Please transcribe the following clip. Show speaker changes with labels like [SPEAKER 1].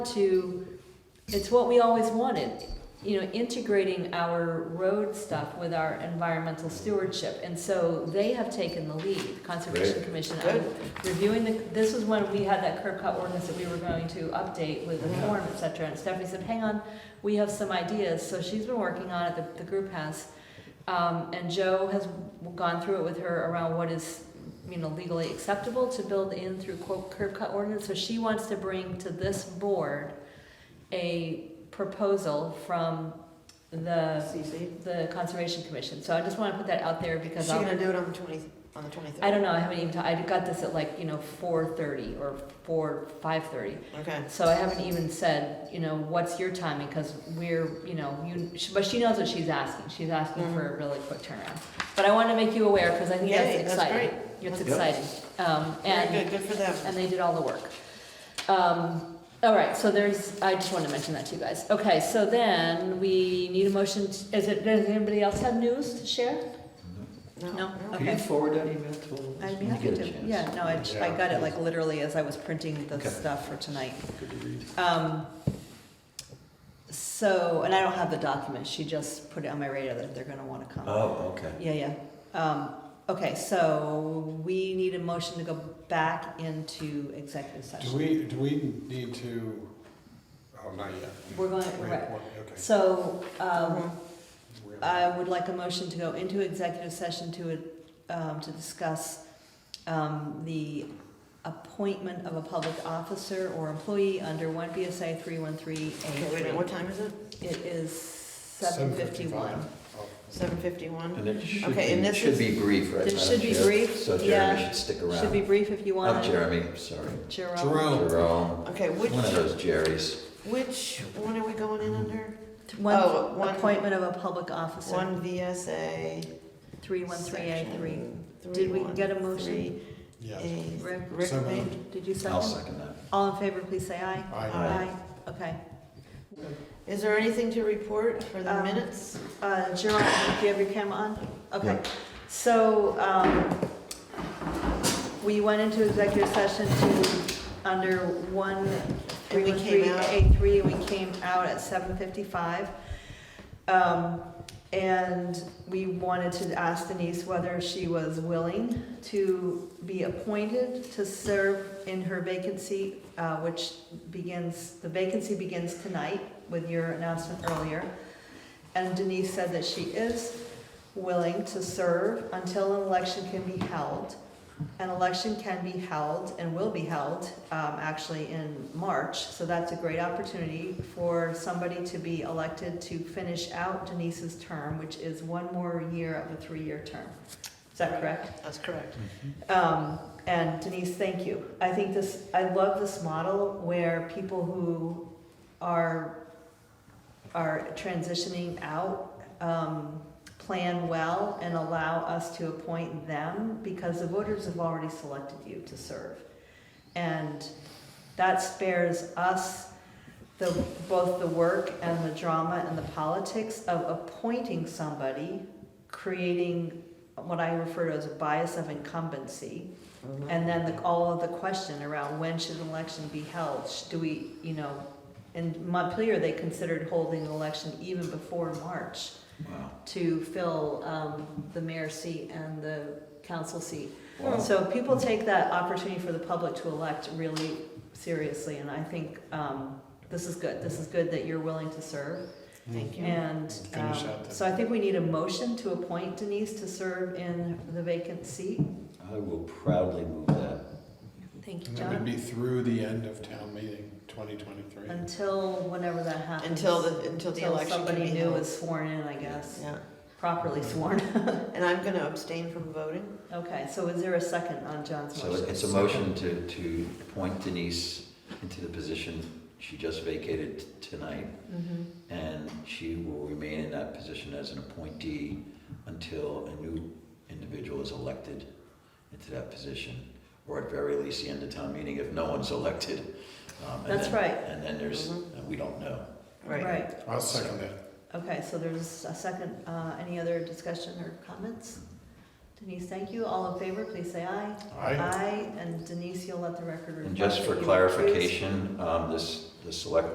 [SPEAKER 1] to, it's what we always wanted, you know, integrating our road stuff with our environmental stewardship. And so they have taken the lead, Conservation
[SPEAKER 2] Great.
[SPEAKER 1] Commission, on reviewing the, this was when we had that curb cut ordinance that we were going to update with the
[SPEAKER 2] Yeah.
[SPEAKER 1] form, et cetera. And Stephanie said, hang on, we have some ideas. So she's been working on it, the, the group has. Um, and Joe has gone through it with her around what is, you know, legally acceptable to build in through quote curb cut ordinance. So she wants to bring to this board a proposal from the,
[SPEAKER 3] CC.
[SPEAKER 1] the Conservation Commission. So I just wanna put that out there
[SPEAKER 3] Is
[SPEAKER 1] because
[SPEAKER 3] she gonna
[SPEAKER 1] I'll,
[SPEAKER 3] do it on the twenty, on the twenty-third?
[SPEAKER 1] I don't know, I haven't even, ta- I got this at like, you know, four thirty or four, five thirty.
[SPEAKER 3] Okay,
[SPEAKER 1] So I haven't even said, you know, what's your timing, because we're, you know, you, but she knows what she's asking, she's asking for a really quick turnaround. But I wanna make you aware, because I think that's
[SPEAKER 3] Mm-hmm. Yay, that's
[SPEAKER 1] exciting,
[SPEAKER 3] great.
[SPEAKER 1] it's
[SPEAKER 3] That's-
[SPEAKER 1] exciting, um,
[SPEAKER 3] very
[SPEAKER 1] and,
[SPEAKER 3] good, good for them.
[SPEAKER 1] and they did all the work. Um, all right, so there's, I just wanted to mention that to you guys, okay, so then we need a motion, to- is it, does anybody else have news to share? No?
[SPEAKER 2] Can you
[SPEAKER 1] Okay.
[SPEAKER 2] forward that email to all of us
[SPEAKER 1] I'd be
[SPEAKER 2] when you
[SPEAKER 1] happy
[SPEAKER 2] get a
[SPEAKER 1] to,
[SPEAKER 2] chance?
[SPEAKER 1] yeah, no, I, j- I
[SPEAKER 2] Yeah.
[SPEAKER 1] got it like literally as I was printing the
[SPEAKER 2] Okay.
[SPEAKER 1] stuff for tonight.
[SPEAKER 2] Good to read.
[SPEAKER 1] Um, so, and I don't have the document, she just put it on my radar that they're gonna wanna come.
[SPEAKER 2] Oh, okay.
[SPEAKER 1] Yeah, yeah. Um, okay, so we need a motion to go back into executive
[SPEAKER 4] Do
[SPEAKER 1] session.
[SPEAKER 4] we, do we need to, oh, not yet.
[SPEAKER 1] We're going,
[SPEAKER 4] Wait,
[SPEAKER 1] right.
[SPEAKER 4] what- Okay.
[SPEAKER 1] So, uh, um,
[SPEAKER 3] Mhm.
[SPEAKER 4] We're-
[SPEAKER 1] I would like a motion to go into executive session to, um, to discuss, um, the appointment of a public officer or employee under one BSA three one three
[SPEAKER 3] Okay, wait, a minute,
[SPEAKER 1] A
[SPEAKER 3] what time is it?
[SPEAKER 1] three. It is seven fifty-one.
[SPEAKER 4] 7:55. Oh,
[SPEAKER 3] Seven fifty-one?
[SPEAKER 2] And it should
[SPEAKER 3] Okay, and
[SPEAKER 2] be,
[SPEAKER 3] this
[SPEAKER 2] should
[SPEAKER 3] is-
[SPEAKER 2] be brief, right?
[SPEAKER 1] It
[SPEAKER 2] Madam
[SPEAKER 1] should be
[SPEAKER 2] Chair?
[SPEAKER 1] brief,
[SPEAKER 2] So Jeremy
[SPEAKER 1] yeah.
[SPEAKER 2] should stick
[SPEAKER 1] Should be
[SPEAKER 2] around.
[SPEAKER 1] brief if you want.
[SPEAKER 2] Not Jeremy, I'm sorry.
[SPEAKER 1] Jerome.
[SPEAKER 4] Jerome.
[SPEAKER 2] Jerome,
[SPEAKER 3] Okay, which,
[SPEAKER 2] one of those Jerrys.
[SPEAKER 3] which one are we going in under?
[SPEAKER 1] One
[SPEAKER 3] Oh, one-
[SPEAKER 1] appointment of a public officer,
[SPEAKER 3] One VSA.
[SPEAKER 1] three one three A three.
[SPEAKER 3] section
[SPEAKER 1] Did we get a
[SPEAKER 3] 313
[SPEAKER 1] motion?
[SPEAKER 4] Yes.
[SPEAKER 3] A.
[SPEAKER 1] Rick?
[SPEAKER 3] Rick
[SPEAKER 4] So
[SPEAKER 3] made-
[SPEAKER 1] Did you
[SPEAKER 2] I'll
[SPEAKER 1] second?
[SPEAKER 2] second that.
[SPEAKER 1] All in favor, please say aye.
[SPEAKER 4] I,
[SPEAKER 3] Aye.
[SPEAKER 1] Okay.
[SPEAKER 3] Is there anything to report for the
[SPEAKER 1] Um,
[SPEAKER 3] minutes?
[SPEAKER 1] Uh, Gerard, do you have your camera on? Okay.
[SPEAKER 2] Yeah.
[SPEAKER 1] So, um, we went into executive session to, under one,
[SPEAKER 3] And
[SPEAKER 1] three,
[SPEAKER 3] we
[SPEAKER 1] one,
[SPEAKER 3] came
[SPEAKER 1] three,
[SPEAKER 3] out.
[SPEAKER 1] eight, three, and we came out at seven fifty-five. Um, and we wanted to ask Denise whether she was willing to be appointed to serve in her vacancy, uh, which begins, the vacancy begins tonight with your announcement earlier. And Denise said that she is willing to serve until an election can be held. An election can be held and will be held, um, actually in March, so that's a great opportunity for somebody to be elected to finish out Denise's term, which is one more year of a three-year term. Is that correct?
[SPEAKER 3] That's correct.
[SPEAKER 4] Mm-hmm.
[SPEAKER 1] Um, and Denise, thank you. I think this, I love this model where people who are, are transitioning out, um, plan well and allow us to appoint them because the voters have already selected you to serve. And that spares us the, both the work and the drama and the politics of appointing somebody, creating what I refer to as a bias of incumbency. And then the, all of the question around when should an election be held? Sh- Do we, you know, in Montpelier, they considered holding an election even before March
[SPEAKER 2] Wow.
[SPEAKER 1] to fill, um, the mayor's seat and the council seat.
[SPEAKER 3] Oh.
[SPEAKER 2] Wow.
[SPEAKER 1] So people take that opportunity for the public to elect really seriously, and I think, um, this is good. This is good that you're willing to serve.
[SPEAKER 3] Thank you.
[SPEAKER 1] And um,
[SPEAKER 4] Finish out the-
[SPEAKER 1] so I think we need a motion to appoint Denise to serve in the vacant seat.
[SPEAKER 2] I will proudly move that.
[SPEAKER 1] Thank you,
[SPEAKER 4] and that would
[SPEAKER 1] John.
[SPEAKER 4] be through the end of town meeting, twenty twenty-three.
[SPEAKER 1] Until whenever that happens.
[SPEAKER 3] Until the, until the
[SPEAKER 1] Until
[SPEAKER 3] election can be
[SPEAKER 1] somebody new
[SPEAKER 3] held.
[SPEAKER 1] is sworn in, I guess,
[SPEAKER 3] Yeah,
[SPEAKER 1] properly sworn.
[SPEAKER 3] and I'm gonna abstain from voting.
[SPEAKER 1] Okay, so is there a second on John's
[SPEAKER 2] So
[SPEAKER 1] motion?
[SPEAKER 2] it's a motion to, to appoint Denise into the position she just vacated t- tonight.
[SPEAKER 3] Mm-hmm.
[SPEAKER 2] And she will remain in that position as an appointee until a new individual is elected into that position, or at very least the end of town meeting if no one's elected. Um, and
[SPEAKER 1] That's
[SPEAKER 2] then-
[SPEAKER 1] right. Mm-hmm.
[SPEAKER 2] And then there's,
[SPEAKER 3] Mhm.
[SPEAKER 2] uh, we don't know.
[SPEAKER 3] Right.
[SPEAKER 4] I'll second that.
[SPEAKER 1] Okay, so there's a second, uh, any other discussion or comments? Denise, thank you. All in favor, please say aye. Aye, and Denise, you'll let the record reflect.
[SPEAKER 2] And just
[SPEAKER 1] that
[SPEAKER 2] for
[SPEAKER 1] you recused.
[SPEAKER 2] clarification, um, this, the select